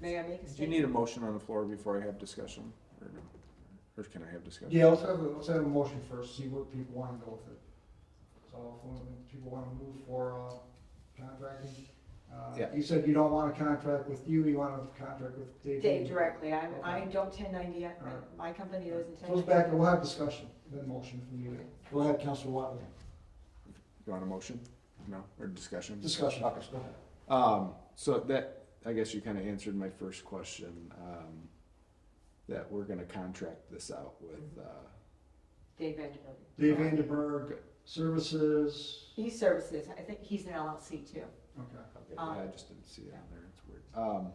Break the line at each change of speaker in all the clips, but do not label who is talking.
May I make a statement?
Do you need a motion on the floor before I have discussion, or, no? or can I have discussion?
Yeah, let's have, a- let's have a motion first, see what people wanna go with it. So if one of the people wanna move for, uh, contracting, uh,
Yeah.
you said you don't wanna contract with you, you wanna contract with Dave.
Dave directly, I, I
Okay.
don't ten ninety, yet.
All right.
my company doesn't ten
Goes
ninety.
back, we'll have discussion, then motion from you. Go ahead, Counselor Watley,
You want a motion? No, or discussion?
discussion, go
Okay.
ahead.
Um, so that, I guess you kind of answered my first question, um, that we're gonna contract this out with, uh,
Mm-hmm. Dave Vanderbilt.
Dave Vandenberg,
Good.
services,
He services, I think he's an LLC too.
okay.
uh, okay,
Um,
yeah, I just didn't see it on there, it's weird. Um,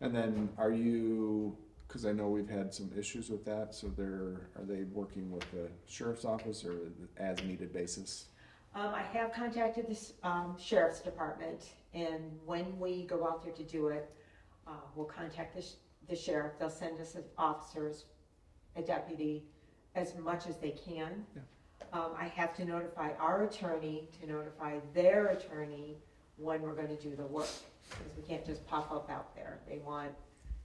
and then are you, cause I know we've had some issues with that, so they're, are they working with the sheriff's office or the as needed basis?
Um, I have contacted this, um, sheriff's department, and when we go out there to do it, uh, we'll contact the, sh- the sheriff, they'll send us officers, a deputy, as much as they can.
Yeah.
Um, I have to notify our attorney to notify their attorney when we're gonna do the work, because we can't just pop up out there. They want,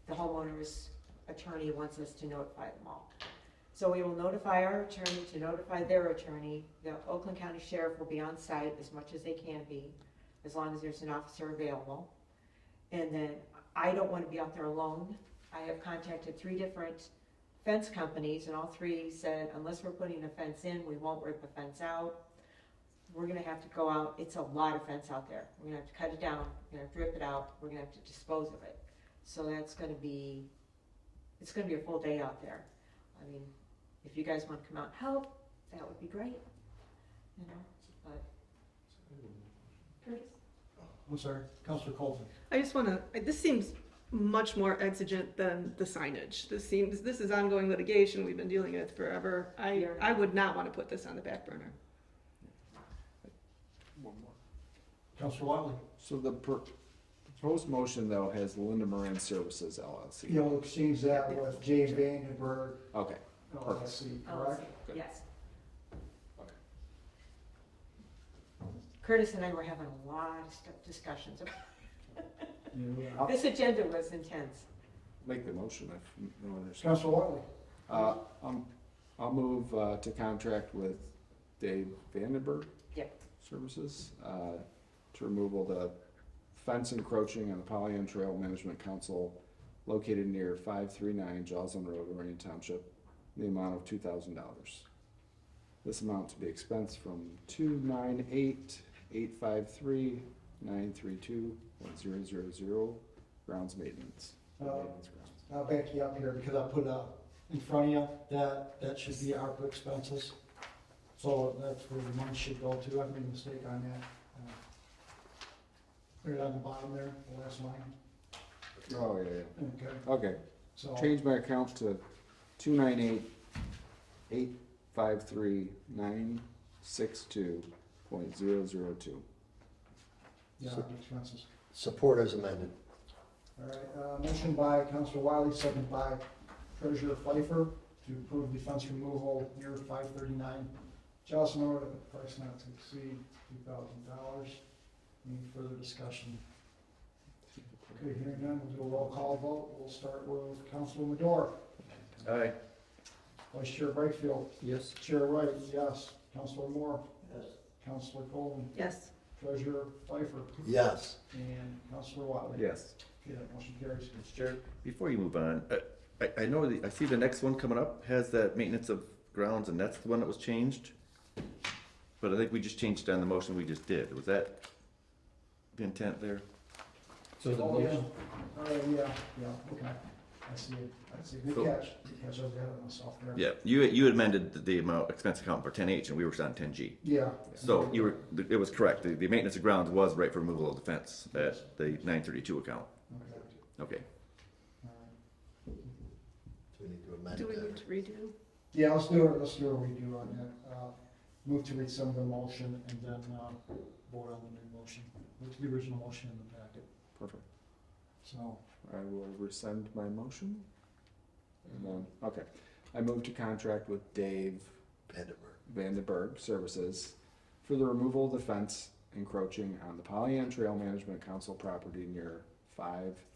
the homeowner's attorney wants us to notify them all. So we will notify our attorney to notify their attorney. The Oakland County Sheriff will be on site as much as they can be, as long as there's an officer available. And then I don't want to be out there alone. I have contacted three different fence companies and all three said, unless we're putting a fence in, we won't rip a fence out. We're gonna have to go out, it's a lot of fence out there. We're gonna have to cut it down, we're gonna have to rip it out, we're gonna have to dispose of it. So that's gonna be, it's gonna be a full day out there. I mean, if you guys want to come out and help, that would be great, you know, but. Curtis?
I'm sorry, Counselor Colton.
I just want to, this seems much more exigent than the signage. This seems, this is ongoing litigation we've been dealing with forever. I,
Yeah.
I would not want to put this on the back burner.
One more.
Counselor Watley.
So the pro- proposed motion though has Linda Moran Services LLC.
You'll exchange that with Jay Vandenberg,
Okay,
LLC,
Oh,
correct?
Good.
Yes. Curtis and I were having a lot of stu- discussions.
I'll
This agenda was intense.
make the motion if no one understands.
Counselor Watley,
Uh, um, I'll move, uh, to contract with Dave Vandenberg.
Yep.
Services, uh, to remove all the fence encroaching on the Pollyant Trail Management Council located near five three nine Joslin Road, Lorraine Township, in the amount of two thousand dollars. This amount to be expensed from two nine eight eight five three nine three two one zero zero zero, grounds maintenance.
Uh,
Maintenance grounds.
I'll back you up here because I put uh in front of you, that, that should be ARPA expenses. So that's where the money should go to, I made a mistake on that. Uh, Put it on the bottom there, the last line,
Oh, yeah, yeah,
okay,
okay.
so.
Change my account to two nine eight, eight five three, nine six two point zero zero two.
Yeah, ARPA expenses.
Support as amended.
All right, uh, motion by Counselor Wiley, second by Treasurer Pfeiffer to approve the fence removal near five thirty-nine Jocelyn Road at a price not to exceed two thousand dollars. Any further discussion? Okay, hearing none, we'll do a roll call vote. We'll start with Counselor Madore.
Aye.
Vice Chair Brightfield.
Yes.
Chair Wright, yes. Counselor Moore.
Yes.
Counselor Golden.
Yes.
Treasurer Pfeiffer.
Yes.
And Counselor Wiley.
Yes.
Okay, that motion carries.
Mr. Chair, before you move on, uh, I, I know, the- I see the next one coming up has that maintenance of grounds, and that's the one that was changed. But I think we just changed on the motion we just did. Was that the intent there?
So the
Oh, yeah.
motion,
Oh, yeah, yeah, okay. I see it. I see. Good
Cool.
catch. Good catch. I've got it myself there.
Yeah, you, you amended the- the amount, expense account for ten H, and we were on ten G.
Yeah.
So you were, it was correct. The, the maintenance of grounds was right for removal of the fence at the nine thirty-two account.
Okay.
Okay.
All right.
do we need to amend
Do we need
that?
to redo?
Yeah, let's do it. Let's do a redo on that. Uh, Move to read some of the motion and then uh, vote on the new motion. Look to the original motion in the packet.
Perfect.
So,
I will rescind my motion. And then, okay. I move to contract with Dave
Vandenberg.
Vandenberg Services for the removal of the fence encroaching on the Pollyant Trail Management Council property near five